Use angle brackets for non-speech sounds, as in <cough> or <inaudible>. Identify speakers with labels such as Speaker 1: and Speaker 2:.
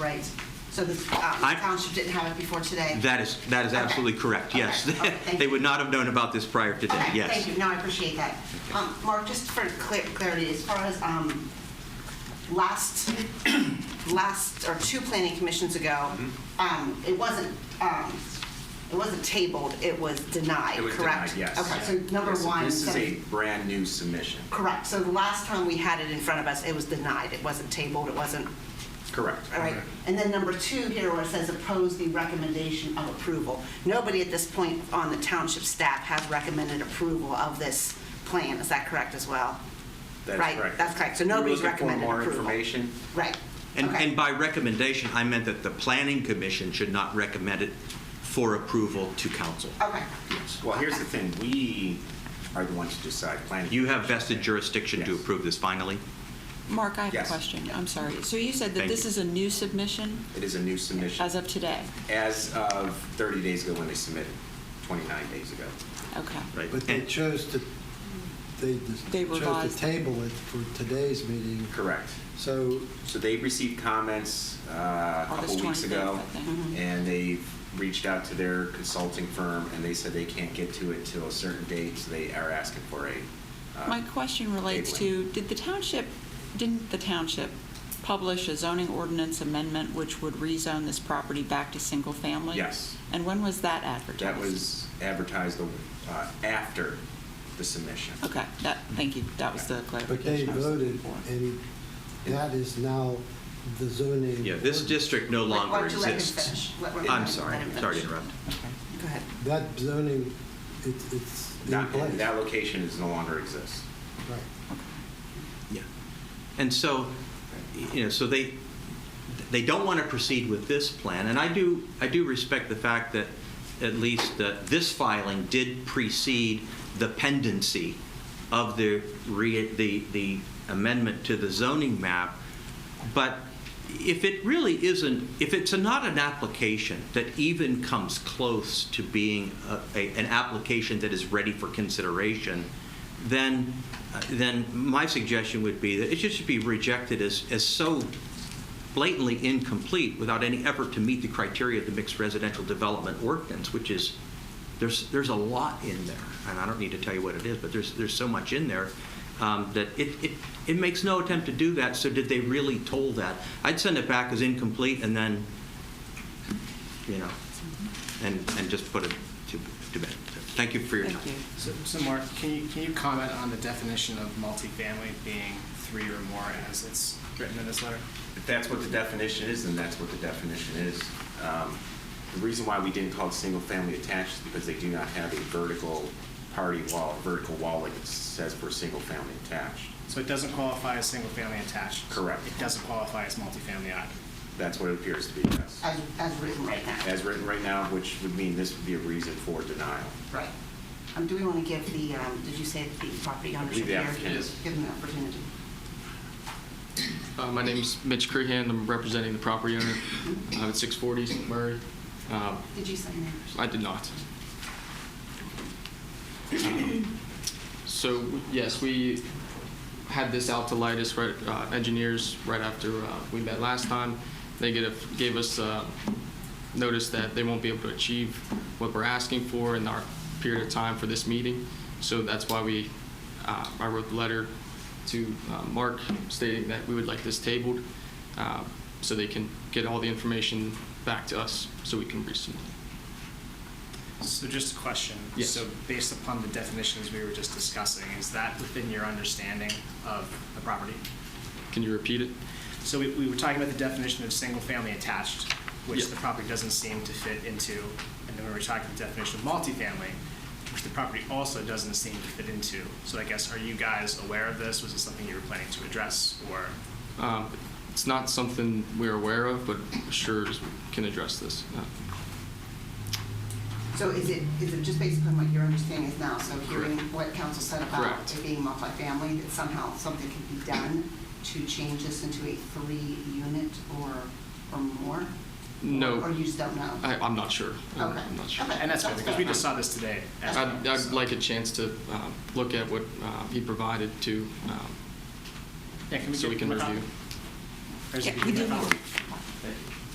Speaker 1: So the uh,
Speaker 2: I-
Speaker 1: township didn't have it before today?
Speaker 2: That is, that is
Speaker 1: Okay.
Speaker 2: absolutely correct, yes.
Speaker 1: Okay, okay, thank
Speaker 2: They
Speaker 1: you.
Speaker 2: would not have known about this prior to today,
Speaker 1: Okay,
Speaker 2: yes.
Speaker 1: Thank you, no, I appreciate that. Um, Mark, just for clear- clarity, as far as um, last, <clears throat> last, or two planning commissions ago,
Speaker 3: Mm-hmm.
Speaker 1: um, it wasn't, um, it wasn't tabled, it was denied,
Speaker 3: It was
Speaker 1: correct?
Speaker 3: denied, yes.
Speaker 1: Okay, so number
Speaker 3: Yes, and
Speaker 1: one.
Speaker 3: This is a
Speaker 1: so-
Speaker 3: brand-new submission.
Speaker 1: Correct, so the last time we had it in front of us, it was denied, it wasn't tabled, it wasn't,
Speaker 3: Correct.
Speaker 1: all right? And then number two here, where it says oppose the recommendation of approval. Nobody at this point on the township staff has recommended approval of this plan, is that correct as well?
Speaker 3: That's
Speaker 1: Right,
Speaker 3: correct.
Speaker 1: that's correct. So
Speaker 3: We were
Speaker 1: nobody's
Speaker 3: looking for
Speaker 1: recommended
Speaker 3: more
Speaker 1: approval.
Speaker 3: information.
Speaker 1: Right,
Speaker 2: And,
Speaker 1: okay.
Speaker 2: and by recommendation, I meant that the planning commission should not recommend it for approval to council.
Speaker 1: Okay,
Speaker 3: Well, here's the thing, we are the ones to decide planning.
Speaker 2: You have vested jurisdiction to
Speaker 3: Yes.
Speaker 2: approve this finally.
Speaker 4: Mark, I have
Speaker 3: Yes.
Speaker 4: a question. I'm sorry. So you said that
Speaker 2: Thank
Speaker 4: this
Speaker 2: you.
Speaker 4: is a new submission
Speaker 3: It is a new submission.
Speaker 4: as of today?
Speaker 3: As of 30 days ago when they submitted, 29 days ago.
Speaker 4: Okay.
Speaker 2: Right.
Speaker 5: But they
Speaker 2: And-
Speaker 5: chose to, they
Speaker 4: They
Speaker 5: chose to
Speaker 4: revised.
Speaker 5: table it for today's meeting.
Speaker 3: Correct.
Speaker 5: So
Speaker 3: So they received comments uh, a couple
Speaker 4: August
Speaker 3: weeks
Speaker 4: 25th,
Speaker 3: ago.
Speaker 4: I think.
Speaker 3: And they reached out to their consulting firm and they said they can't get to it till a certain date, so they are asking for a. uh,
Speaker 4: My question relates
Speaker 3: tabling.
Speaker 4: to, did the township, didn't the township publish a zoning ordinance amendment which would rezone this property back to single-family?
Speaker 3: Yes.
Speaker 4: And when was that advertised?
Speaker 3: That was advertised uh, after the submission.
Speaker 4: Okay, that, thank you. That was the
Speaker 5: But they
Speaker 4: clarification I was looking
Speaker 5: voted,
Speaker 4: for.
Speaker 5: and that is now the zoning.
Speaker 2: Yeah, this
Speaker 5: ordinance.
Speaker 2: district no
Speaker 1: Why- why
Speaker 2: longer
Speaker 1: don't you let him
Speaker 2: exists.
Speaker 1: finish? Let- let-
Speaker 2: I'm
Speaker 1: let
Speaker 2: sorry,
Speaker 1: him
Speaker 2: sorry to
Speaker 1: finish.
Speaker 2: interrupt.
Speaker 1: go ahead.
Speaker 5: That zoning, it's, it's in
Speaker 3: That,
Speaker 5: place.
Speaker 3: that location is no longer exists.
Speaker 5: Right.
Speaker 2: Yeah. And so, you know, so they, they don't want to proceed with this plan. And I do, I do respect the fact that at least uh, this filing did precede the pendency of the, re- the the amendment to the zoning map. But if it really isn't, if it's not an application that even comes close to being a- a- an application that is ready for consideration, then, then my suggestion would be that it just should be rejected as, as so blatantly incomplete without any effort to meet the criteria of the mixed residential development ordinance, which is, there's, there's a lot in there, and I don't need to tell you what it is, but there's, there's so much in there um, that it, it, it makes no attempt to do that, so did they really toll that? I'd send it back as incomplete and then, you know, and, and just put it to, to bed. Thank you for your time.
Speaker 4: Thank you.
Speaker 6: So, so Mark, can you, can you comment on the definition of multifamily being three or more as it's written in this letter?
Speaker 3: If that's what the definition is, then that's what the definition is. Um, The reason why we didn't call it single-family attached is because they do not have a vertical party wall, vertical wall like it says for single-family attached.
Speaker 6: So it doesn't qualify as single-family attached?
Speaker 3: Correct.
Speaker 6: It doesn't qualify as multifamily either?
Speaker 3: That's what it appears to be, yes.
Speaker 1: As, as written right now.
Speaker 3: As written right now, which would mean this would be a reason for denial.
Speaker 1: Right. Um, do we want to give the, um, did you say that the property owners
Speaker 3: believe
Speaker 1: are
Speaker 3: the
Speaker 1: here?
Speaker 3: applicant is.
Speaker 1: Give them the opportunity.
Speaker 7: Uh, My name's Mitch Crehan. I'm representing the property owner uh, at 640 Murray. Um,
Speaker 1: Did you sign that?
Speaker 7: I did not. Um, So, yes, we had this out to Lightus right, uh, engineers right after uh, we met last time. They get a- gave us uh, notice that they won't be able to achieve what we're asking for in our period of time for this meeting. So that's why we, uh, I wrote the letter to uh, Mark stating that we would like this tabled uh, so they can get all the information back to us so we can resubmit.
Speaker 6: So just a question.
Speaker 7: Yes.
Speaker 6: So based upon the definitions we were just discussing, is that within your understanding of the property?
Speaker 7: Can you repeat it?
Speaker 6: So we, we were talking about the definition of single-family attached, which
Speaker 7: Yeah.
Speaker 6: the property doesn't seem to fit into, and then we were talking the definition of multifamily, which the property also doesn't seem to fit into. So I guess, are you guys aware of this? Was it something you were planning to address, or?
Speaker 7: Um, It's not something we're aware of, but sure can address this. Uh,
Speaker 1: So is it, is it just based on what your understanding is now? So hearing
Speaker 7: Correct.
Speaker 1: what council said about
Speaker 7: Correct.
Speaker 1: it being multifamily, that somehow something can be done to change this into a three-unit or, or more?
Speaker 7: No.
Speaker 1: Or you just don't know?
Speaker 7: I- I'm not sure. I'm-
Speaker 1: Okay.
Speaker 7: I'm not sure.
Speaker 1: Okay.
Speaker 6: And that's fair, because we just saw this today. as well,
Speaker 7: I'd I'd
Speaker 6: so-
Speaker 7: like a chance to um, look at what uh, he provided to, um,
Speaker 6: Yeah, can
Speaker 7: so
Speaker 6: get
Speaker 7: we can
Speaker 6: more copy?
Speaker 7: review.
Speaker 6: There's a-
Speaker 4: Yeah, we do need,